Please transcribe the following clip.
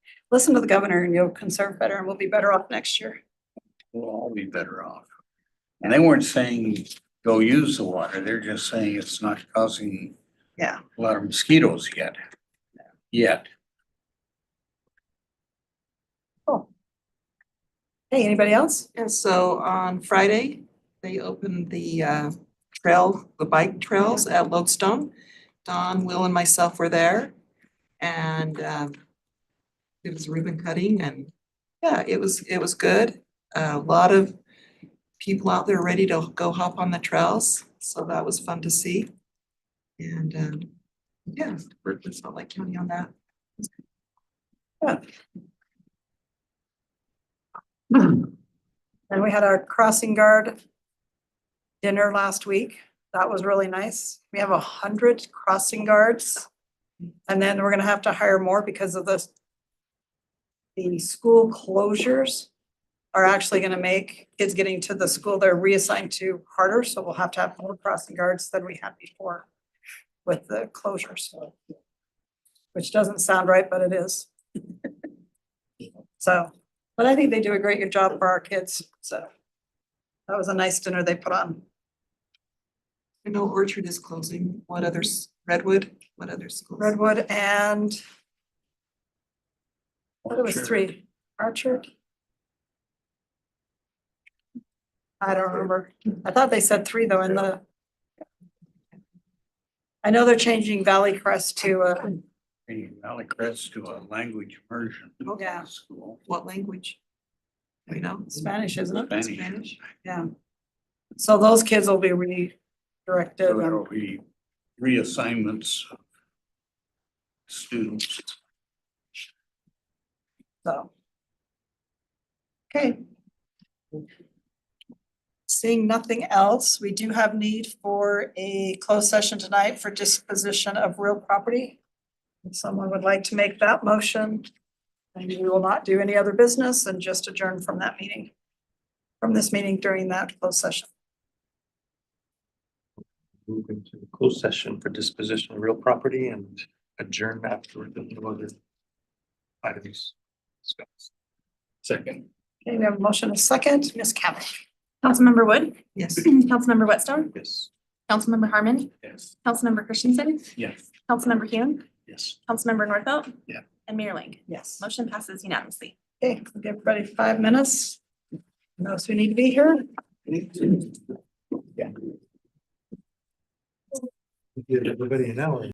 Listen to the governor and you'll conserve better and we'll be better off next year. we'll all be better off. And they weren't saying go use the water, they're just saying it's not causing Yeah. a lot of mosquitoes yet. Yet, Hey, anybody else? And so on Friday, they opened the uh, trail, the bike trails at Lodestone. Don, Will and myself were there and um, it was ribbon cutting and yeah, it was, it was good. A lot of people out there ready to go hop on the trails, so that was fun to see. And um, yeah, worked with Salt Lake County on that. And we had our crossing guard dinner last week. That was really nice. We have a hundred crossing guards. And then we're gonna have to hire more because of the the school closures are actually gonna make kids getting to the school they're reassigned to harder, so we'll have to have more crossing guards than we had before with the closures. Which doesn't sound right, but it is. So. But I think they do a great job for our kids, so. That was a nice dinner they put on. I know Orchard is closing. What others? Redwood? What other schools? Redwood and, what it was Orchard. three, Archer? I don't remember. I thought they said three though in the. I know they're changing Valley Crest to, uh, bringing Valley Crest to a language immersion. Oh, yeah. School. What language? Do you know? Spanish, isn't it? Spanish. Spanish. Yeah. So those kids will be redirected. So and- there'll be reassignments of students. So. Okay. Seeing nothing else, we do have need for a closed session tonight for disposition of real property. If someone would like to make that motion, and we will not do any other business and just adjourn from that meeting. From this meeting during that closed session. move into closed session for disposition of real property and adjourn afterward. the no other Items. Second. Okay, we have a motion and a second, Ms. Cavish. Councilmember Wood, Yes. Councilmember Whitstone, Yes. Councilmember Harmon, Yes. Councilmember Christensen, Yes. Councilmember Hume, Yes. Councilmember Norfelt. Yeah. And Mayor Ling. Yes. Motion passes unanimously. Okay, we'll give everybody five minutes. Those who need to be here. Yeah. We Give everybody an hour.